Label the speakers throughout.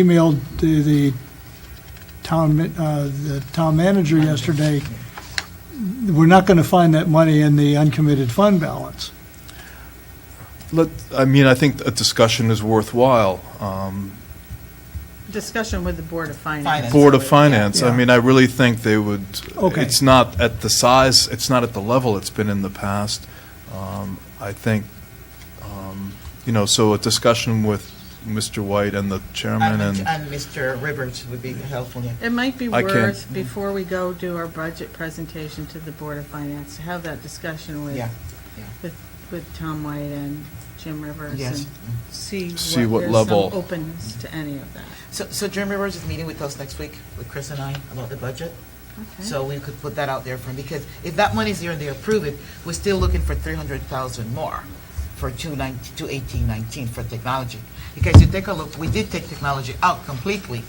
Speaker 1: emailed to the town, ma- uh, the town manager yesterday, we're not going to find that money in the uncommitted fund balance.
Speaker 2: Let, I mean, I think a discussion is worthwhile. Um,
Speaker 3: Discussion with the Board of
Speaker 4: Finance.
Speaker 3: Finance.
Speaker 2: Board of Finance, I
Speaker 1: Yeah.
Speaker 2: mean, I really think they would,
Speaker 1: Okay.
Speaker 2: it's not at the size, it's not at the level it's been in the past. Um, I think, um, you know, so a discussion with Mr. White and the chairman
Speaker 4: And
Speaker 2: and,
Speaker 4: and Mr. Rivers would be helpful.
Speaker 3: It might be
Speaker 2: I can-
Speaker 3: worth, before we go do our budget presentation to the Board of Finance, to have that discussion with,
Speaker 4: Yeah,
Speaker 3: with Tom White and Jim Rivers.
Speaker 4: yes.
Speaker 3: and See
Speaker 2: See what
Speaker 3: what, there's
Speaker 2: level.
Speaker 3: some openness to any of that.
Speaker 4: So, so Jim Rivers is meeting with us next week, with Chris and I, about the budget. So we could put that out there for him, because if that money's there and they approve it, we're still looking for three hundred thousand more for two nine, two eighteen nineteen for technology. Because you take a look, we did take technology out completely.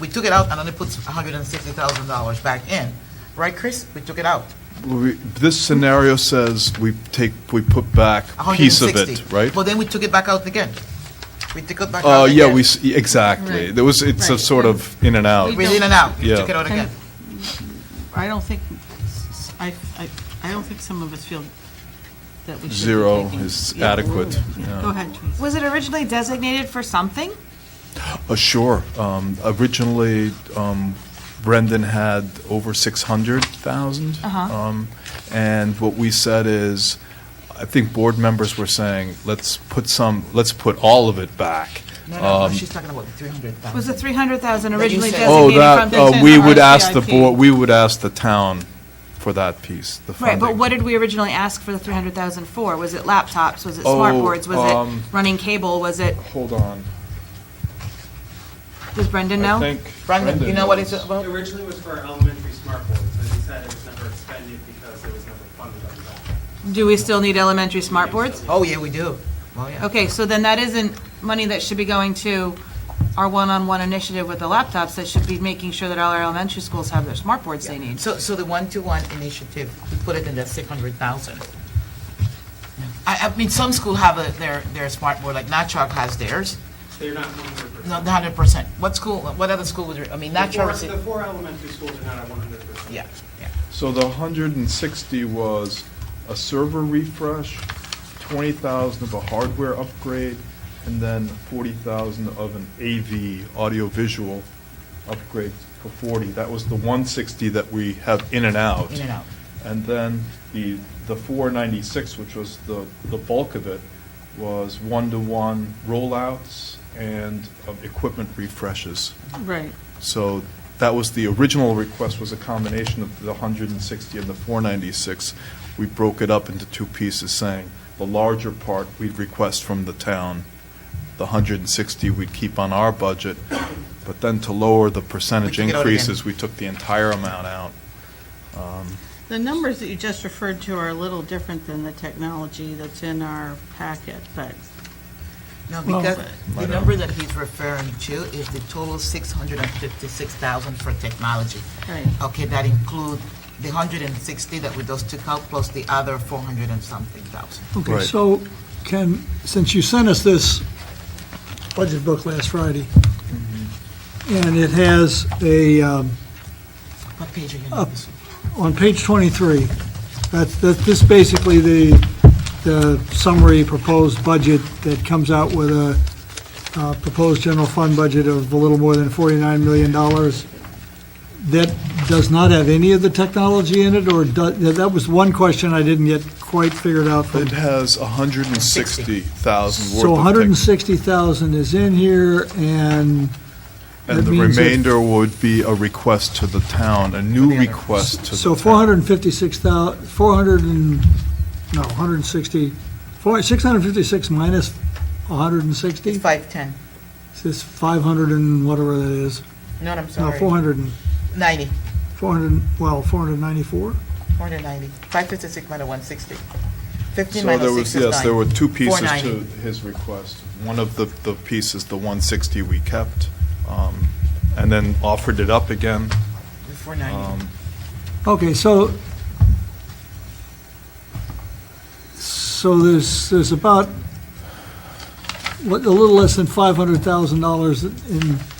Speaker 4: We took it out and only put hundred and sixty thousand dollars back in, right, Chris? We took it out.
Speaker 2: we- this scenario says we take, we put back a piece of it,
Speaker 4: 160.
Speaker 2: right?
Speaker 4: But then we took it back out again. We took it back out
Speaker 2: Uh,
Speaker 4: again.
Speaker 2: yeah, we, s- exactly.
Speaker 3: Right.
Speaker 2: There was, it's a
Speaker 3: Right.
Speaker 2: sort of in and out.
Speaker 4: We did it out, we
Speaker 2: Yeah.
Speaker 4: took it out again.
Speaker 3: I don't think, s- I, I, I don't think some of us feel that we should. be
Speaker 2: Zero
Speaker 3: taking-
Speaker 2: is
Speaker 3: Yeah.
Speaker 2: adequate, yeah.
Speaker 3: Go ahead, Teresa.
Speaker 5: Was it originally designated for something?
Speaker 2: Uh, Sure. Um, Originally, um, Brendan had over 600,000.
Speaker 5: Uh-huh.
Speaker 2: Um, And what we said is, I think board members were saying, let's put some, let's put all of it back.
Speaker 4: No, no, no,
Speaker 2: Um,
Speaker 4: she's talking about the three hundred thousand.
Speaker 5: Was the 300,000 originally
Speaker 4: said-
Speaker 2: Oh,
Speaker 5: designated
Speaker 2: that,
Speaker 5: from?
Speaker 2: uh,
Speaker 3: in
Speaker 2: we
Speaker 3: the
Speaker 2: would ask the
Speaker 3: RCIP.
Speaker 2: board, we would ask the town for that piece, the
Speaker 5: Right,
Speaker 2: funding.
Speaker 5: but what did we originally ask for the 300,000 for? Was it laptops? Was it
Speaker 2: Oh,
Speaker 5: smart boards? Was
Speaker 2: um,
Speaker 5: it running cable? Was it,
Speaker 2: Hold on.
Speaker 5: does Brendan
Speaker 2: I
Speaker 5: know?
Speaker 2: think
Speaker 4: Brandon, you know what it's about?
Speaker 6: It originally was for elementary smart boards, and he said it was never expended because it was never funded under that.
Speaker 5: Do we still need elementary smart boards?
Speaker 4: Oh, yeah, we do. Well, yeah.
Speaker 5: Okay, so then that isn't money that should be going to our one-on-one initiative with the laptops. That should be making sure that all our elementary schools have their smart boards they need.
Speaker 4: So, so the one-to-one initiative, we put it in that six hundred thousand. I, I mean, some school have a, their, their smart board, like Natchock has theirs,
Speaker 6: They're not one hundred percent.
Speaker 4: not hundred percent. What school, what other school would, I mean, Natchock is,
Speaker 6: The four elementary schools are not at one hundred percent.
Speaker 4: yeah, yeah.
Speaker 2: So the 160 was a server refresh, 20,000 of a hardware upgrade, and then 40,000 of an AV, audiovisual upgrade for 40. That was the 160 that we have in and out.
Speaker 4: In and out.
Speaker 2: And then the, the 496, which was the, the bulk of it, was one-to-one rollouts and uh, equipment refreshes.
Speaker 3: Right.
Speaker 2: So that was, the original request was a combination of the 160 and the 496. We broke it up into two pieces, saying the larger part we'd request from the town, the 160 we'd keep on our budget, but then to lower the percentage
Speaker 4: We took it out again.
Speaker 2: increases, we took the entire amount out.
Speaker 3: The numbers that you just referred to are a little different than the technology that's in our packet, but
Speaker 4: No,
Speaker 1: Well- uh,
Speaker 4: because the number that he's referring to is the total six hundred and fifty-six thousand for technology.
Speaker 3: Right.
Speaker 4: Okay, that include the hundred and sixty that we just took out, plus the other four hundred and something thousand.
Speaker 1: Okay,
Speaker 2: Right.
Speaker 1: so can, since you sent us this budget book last Friday,
Speaker 2: Mm-hmm.
Speaker 1: and it has a, um,
Speaker 4: What page are you
Speaker 1: Uh,
Speaker 4: on? this?
Speaker 1: on page 23, that's, that's this basically the, the summary proposed budget that comes out with a uh, proposed general fund budget of a little more than $49 million. That does not have any of the technology in it, or do- that was one question I didn't yet quite figured out from
Speaker 2: It has 160,000 worth of.
Speaker 1: So
Speaker 2: things,
Speaker 1: 160,000 is in here, and
Speaker 2: And
Speaker 1: that
Speaker 2: the
Speaker 1: means if-
Speaker 2: remainder would be a request to the town, a new
Speaker 4: other-
Speaker 2: request to the town.
Speaker 1: so 456,000, 400 and, no, 160, four- 656 minus 160?
Speaker 4: It's five ten.
Speaker 1: This 500 and whatever that is.
Speaker 4: No, I'm
Speaker 1: No,
Speaker 4: sorry.
Speaker 1: 400 and,
Speaker 4: 90,
Speaker 1: 400, and- well, 494?
Speaker 4: 490. 556 minus 160. 15
Speaker 2: So there
Speaker 4: minus
Speaker 2: was,
Speaker 4: 6 is 9.
Speaker 2: yes, there were two pieces to
Speaker 4: 490.
Speaker 2: his request. One of the, the pieces, the 160 we kept, um, and then offered it up again.
Speaker 4: 490.
Speaker 2: Um,
Speaker 1: Okay, so, so there's, there's about li- a little less than $500,000 in